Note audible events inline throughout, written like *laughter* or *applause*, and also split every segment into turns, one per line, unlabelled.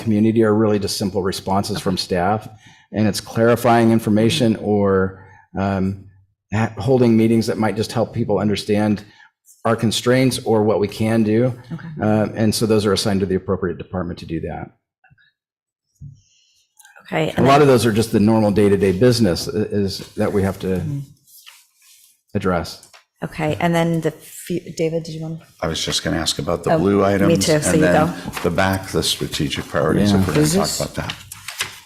community are really just simple responses from staff, and it's clarifying information or um, ha- holding meetings that might just help people understand our constraints or what we can do.
Okay.
Uh, And so those are assigned to the appropriate department to do that.
Okay.
A
and
lot of those are just the normal day-to-day business i- is, that we have to address.
then- Okay, and then the, fu- David, did you want?
I was just going to ask about the blue items.
Oh, too, so
and
you
then The back, the strategic priorities, if we're going to talk about that.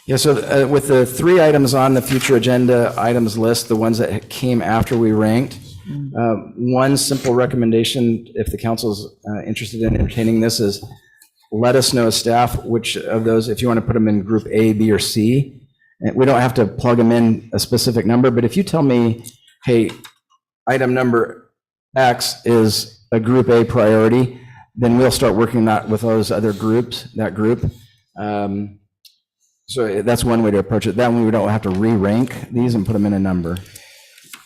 Yeah, so uh, with the three items on the future agenda items list, the ones that came after we ranked, uh, one simple recommendation, if the council's uh, interested in entertaining this, is let us know as staff which of those, if you want to put them in group A, B, or C. And we don't have to plug them in a specific number, but if you tell me, hey, item number X is a group A priority, then we'll start working that with those other groups, that group. Um, so eh, that's one way to approach it. That one, we don't have to re-rank these and put them in a number.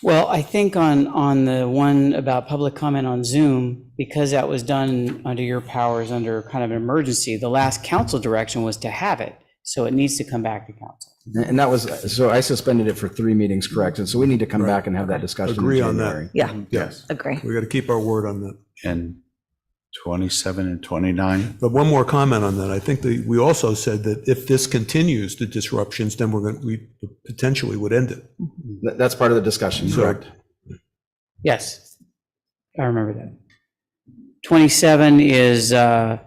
Well, I think on, on the one about public comment on Zoom, because that was done under your powers, under kind of an emergency, the last council direction was to have it. So it needs to come back to council.
And that was, so I suspended it for three meetings, correct? And so we need to come back and have that discussion. in
Agree on that.
January.
Yeah,
Yes.
agree.
We got to keep our word on that.
And 27 and 29,
But one more comment on that. I think that we also said that if this continues, the disruptions, then we're going, to we potentially would end it.
Th- That's part of the discussion, correct?
Yes, I remember that. 27 is, uh,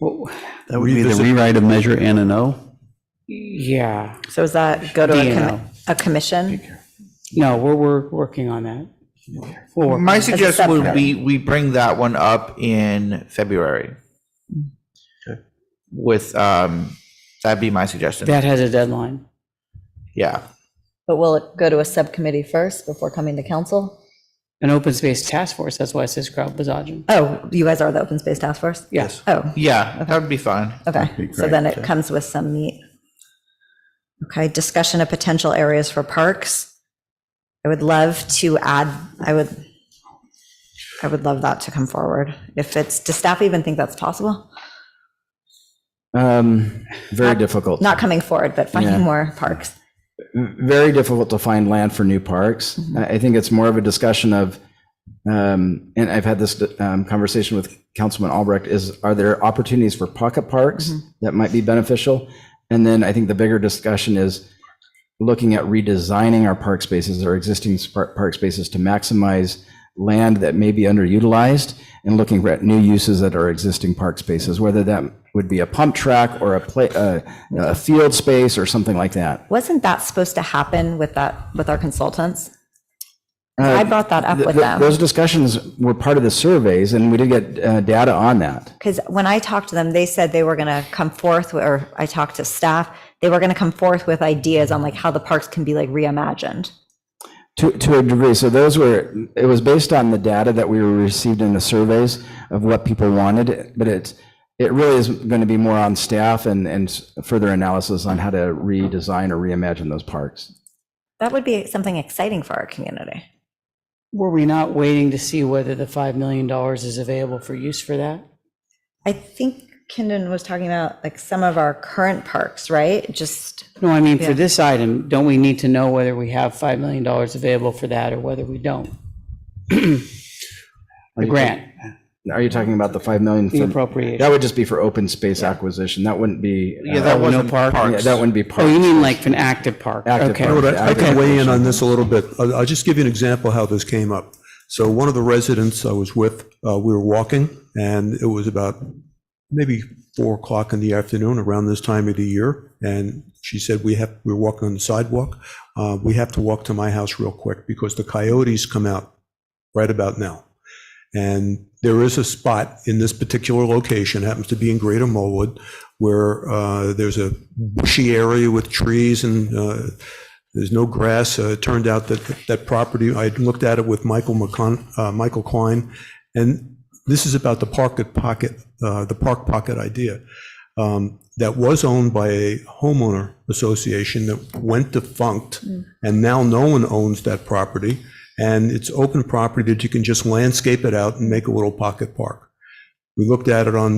well,
That would be the
Revisit-
rewrite of measure N and O.
yeah,
So is that go to a,
DNO.
commi- a commission?
no, we're, we're working on that. We'll work on
My
it.
suggestion would be we bring that one up in February. With, um, that'd be my suggestion.
That has a deadline.
Yeah.
But will it go to a subcommittee first before coming to council?
An open space task force, that's why it says crowd massaging.
Oh, you guys are the open space task force?
Yes.
Oh,
Yeah, that would be fine.
okay. So then it comes with some meat. Okay, discussion of potential areas for parks. I would love to add, I would, I would love that to come forward. If it's, does staff even think that's possible?
Um, Very difficult.
Not coming forward, but
Yeah.
finding more parks.
very difficult to find land for new parks. I I think it's more of a discussion of, um, and I've had this um, conversation with Councilman Albrecht, is are there opportunities for pocket parks that might be beneficial? And then I think the bigger discussion is looking at redesigning our park spaces, our existing spark- park spaces to maximize land that may be underutilized and looking at new uses that are existing park spaces, whether that would be a pump track or a play, uh, a field space or something like that.
Wasn't that supposed to happen with that, with our consultants? I brought that up
Uh, Th-
with
th-
them,
Those discussions were part of the surveys, and we did get uh, data on that.
because when I talked to them, they said they were going to come forth, with- or I talked to staff, they were going to come forth with ideas on like how the parks can be like reimagined.
To, to a degree, so those were, it was based on the data that we received in the surveys of what people wanted, but it, it really is going to be more on staff and, and further analysis on how to redesign or reimagine those parks.
That would be something exciting for our community.
Were we not waiting to see whether the $5 million is available for use for that?
I think Kindon was talking about like some of our current parks, right? Just,
No, I mean, for this item, don't we need to know whether we have $5 million available for that or whether
*clears throat*
we don't? The grant,
Are you talking about the 5 million?
the
from-
appropriation.
That would just be for open space acquisition. That wouldn't be. uh,
Yeah, that wasn't
yeah,
parks.
That wouldn't be
Oh,
parks.
you mean like an active park?
Active
Okay.
park.
But I I
Okay.
can weigh in on this a little bit. I'll, I'll just give you an example how this came up. So one of the residents I was with, uh, we were walking, and it was about maybe four o'clock in the afternoon, around this time of the year, and she said, "We have we we're walking on the sidewalk. Uh, we have to walk to my house real quick because the coyotes come out right about now." And there is a spot in this particular location, happens to be in Greater Mulwood, where uh, there's a bushy area with trees and uh, there's no grass. Uh, It turned out that that property, I looked at it with Michael McCon, uh, Michael Klein, and this is about the park at pocket, uh, the park pocket idea um, that was owned by a homeowner association that went defunct, and now no one owns that property, and it's open property that you can just landscape it out and make a little pocket park. We looked at it on